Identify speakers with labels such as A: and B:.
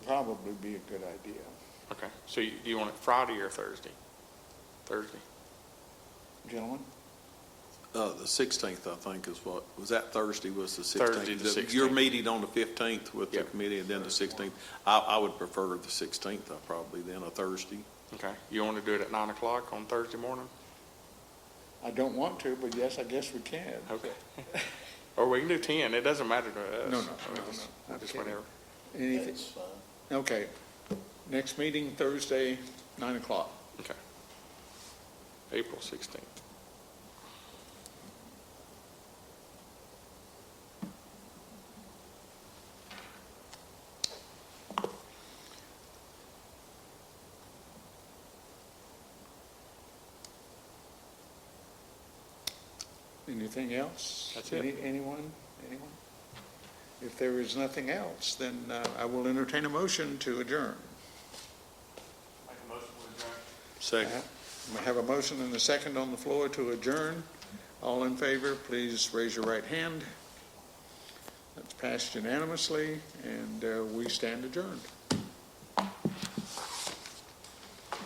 A: probably be a good idea.
B: Okay, so you, do you want it Friday or Thursday? Thursday?
A: Gentlemen,
C: Uh, the sixteenth, I think, is what, was that Thursday was the sixteenth?
B: Thursday, the 16th.
C: Your meeting on the fifteenth with the
B: Yep.
C: committee and then the sixteenth. I, I would prefer the sixteenth, I probably, than a Thursday.
B: Okay, you want to do it at nine o'clock on Thursday morning?
A: I don't want to, but yes, I guess we can.
B: Okay. Or we can do ten, it doesn't matter to us.
A: No, no,
B: I mean, it's-
A: no, no.
B: Just whatever.
A: Anything, okay. Next meeting Thursday, nine o'clock.
B: Okay. April sixteenth.
A: Anything else?
B: That's it.
A: Any- Anyone, anyone? If there is nothing else, then uh, I will entertain a motion to adjourn.
C: Second.
A: We have a motion and a second on the floor to adjourn. All in favor, please raise your right hand. That's passed unanimously, and uh, we stand adjourned.